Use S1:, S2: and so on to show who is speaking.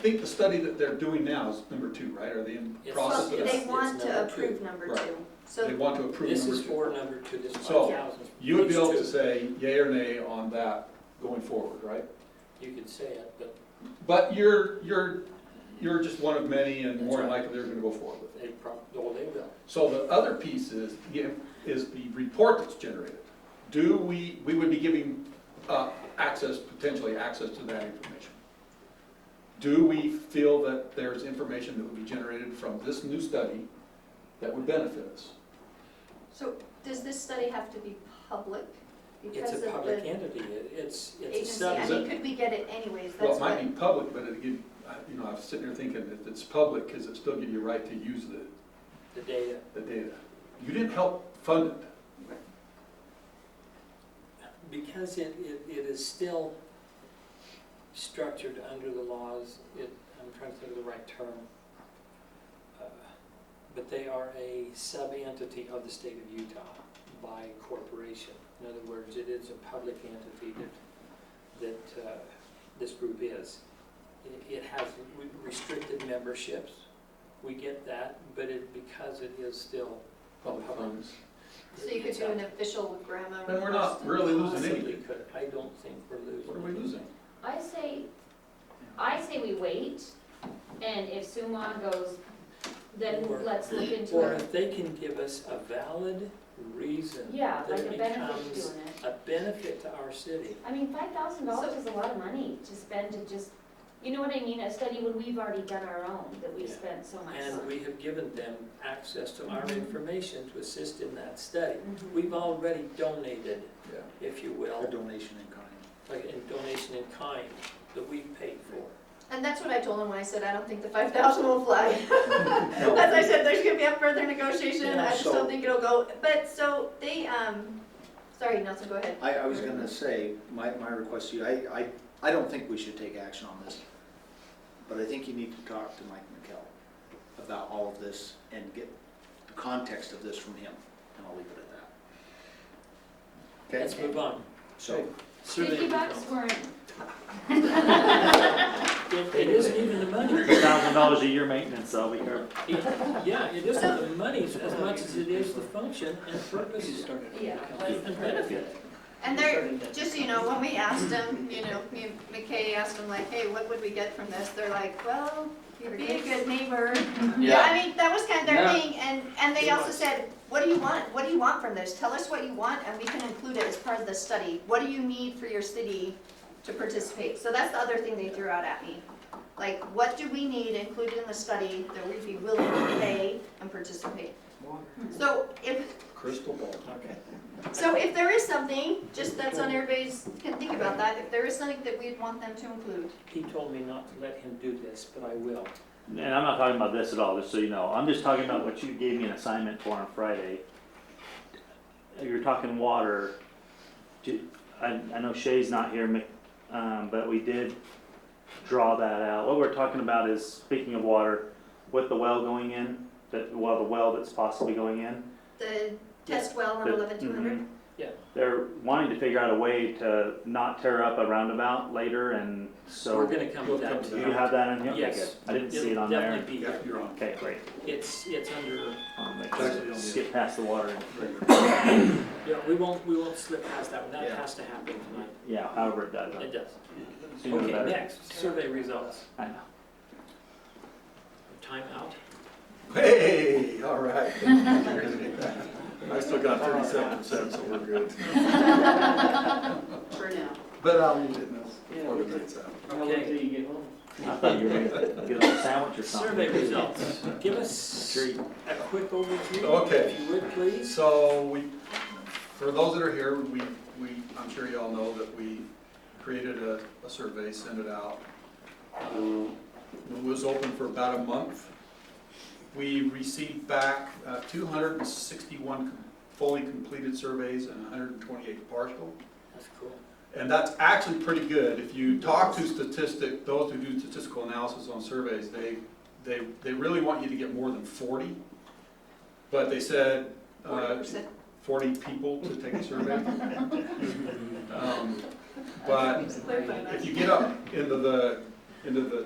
S1: think the study that they're doing now is number two, right? Are they in
S2: It's-
S1: process
S2: Well,
S1: of,
S2: it's-
S3: They
S1: that?
S2: it's
S3: want to
S2: number two.
S3: approve number
S1: Right.
S3: two.
S1: they
S3: So,
S1: want to approve
S2: This
S1: number
S2: is
S1: two?
S2: for number two, this five
S1: So,
S2: thousand.
S1: You would be able to say yay or nay on that going forward, right?
S2: You could say it, but
S1: But you're, you're, you're just one of many and
S2: That's
S1: more than
S2: right.
S1: likely they're gonna go forward with it.
S2: they prob, no, they will.
S1: So the other piece is, yeah, is the report that's generated. Do we, we would be giving uh, access, potentially access to that information. Do we feel that there's information that would be generated from this new study that would benefit us?
S3: so does this study have to be public?
S2: It's
S3: Because
S2: a
S3: of
S2: public
S3: the
S2: entity, It- it's, it's a
S3: agency, I
S2: study.
S3: mean, could we get it anyways,
S1: Well, it
S3: that's
S1: might
S3: what,
S1: be public, but it again, I- you know, I was sitting there thinking, if it's public, does it still give you a right to use the,
S2: the data.
S1: the data? You didn't help fund it.
S2: Because it, it, it is still structured under the laws, it, I'm trying to think of the right term. Uh, But they are a sub-entity of the state of Utah by corporation. In other words, it is a public entity that, that, uh, this group is. It- It has re- restricted memberships, we get that, but it, because it is still.
S1: Public funds.
S3: so you could do an official grammar.
S1: Then we're not
S3: request.
S1: really losing anything.
S2: Possibly could, I don't think we're losing.
S1: What are we losing?
S4: I say, I say we wait, and if Sumon goes, then
S2: Or-
S4: let's look into
S2: Or
S4: it.
S2: if they can give us a valid reason.
S4: Yeah, like
S2: that
S4: a
S2: it
S4: benefit to
S2: becomes
S4: doing it.
S2: A benefit to our city.
S4: I mean, five thousand dollars is a lot of money to spend to just, you know what I mean, a study when we've already done our own, that we've
S2: Yeah.
S4: spent so much
S2: And
S4: on.
S2: we have given them access to our
S4: Mm-hmm.
S2: information to assist in that study.
S4: Mhm.
S2: We've already donated,
S1: Yeah.
S2: if you will,
S5: donation in kind.
S2: like in donation in kind that we've paid for.
S3: And that's what I told him when I said, I don't think the five thousand will fly. As I said, there's gonna be a further negotiation, I just
S5: So-
S3: don't think it'll go, but so they, um, sorry, Nelson, go ahead.
S5: I, I was gonna say, my, my request to you, I, I, I don't think we should take action on this, but I think you need to talk to Mike McKell about all of this and get the context of this from him, and I'll leave it at that.
S2: Let's move on.
S5: So,
S2: Survey
S4: Fifty bucks
S2: results.
S4: weren't,
S2: It it isn't even the money.
S6: thousand dollars a year maintenance, I'll be here.
S2: Yeah, it isn't the money as much as it is the function and purpose
S4: yeah.
S2: and benefit.
S3: And they're, just so you know, when we asked them, you know, me and McKay asked them like, hey, what would we get from this? They're like, well, you'd be a good neighbor. Yeah, I mean, that was kind of their
S5: Yeah.
S3: thing, and, and they
S2: It
S3: also
S2: was.
S3: said, what do you want? What do you want from this? Tell us what you want, and we can include it as part of the study. What do you need for your city to participate? So that's the other thing they threw out at me. Like, what do we need included in the study that we'd be willing to pay and participate? So if,
S1: Crystal ball.
S5: okay.
S3: so if there is something, just that's on everybody's, can think about that, if there is something that we'd want them to include.
S2: He told me not to let him do this, but I will.
S6: And I'm not talking about this at all, just so you know. I'm just talking about what you gave me an assignment for on Friday. You're talking water. Do- I, I know Shay's not here, Mc- um, but we did draw that out. What we're talking about is, speaking of water, with the well going in, that, well, the well that's possibly going in.
S3: The test well on
S6: that-
S3: eleven two hundred?
S6: mhm.
S5: Mm-hmm.
S2: Yeah.
S6: They're wanting to figure out a way to not tear up a roundabout later and so.
S2: We're gonna come to
S1: We'll
S2: that
S1: come to
S6: Do
S2: too.
S6: you have that in here? Okay,
S2: Yes.
S6: good. I didn't see it
S2: It'll
S6: on there.
S2: Definitely be
S1: Yeah,
S2: there.
S1: you're on.
S6: Okay, great.
S2: It's, it's under,
S6: Um, like,
S1: Actually, don't do
S6: skip past the water.
S2: yeah, we won't, we won't slip past that one. That
S5: Yeah.
S2: has to happen tonight.
S6: Yeah, however it does.
S2: It does.
S6: Sooner the
S2: Okay,
S6: better.
S2: next, survey results.
S6: I know.
S2: Timeout.
S1: Hey, all right. I still got thirty-seven cents, so we're good.
S3: For now.
S1: But um, I'll eat it now before the night's out.
S2: Okay,
S5: you get home.
S6: I thought you were gonna get a sandwich or something.
S2: survey results. Give us
S6: Treat.
S2: a quick overview,
S1: Okay.
S2: if you would, please.
S1: So we, for those that are here, we, we, I'm sure you all know that we created a, a survey, sent it out. Um, It was open for about a month. We received back uh, 261 com- fully completed surveys and 128 partial.
S2: That's cool.
S1: And that's actually pretty good. If you talk to statistic, those who do statistical analysis on surveys, they, they, they really want you to get more than forty. But they said,
S3: Forty
S1: uh,
S3: percent.
S1: forty people to take a survey. Um, But if you get up into the, into the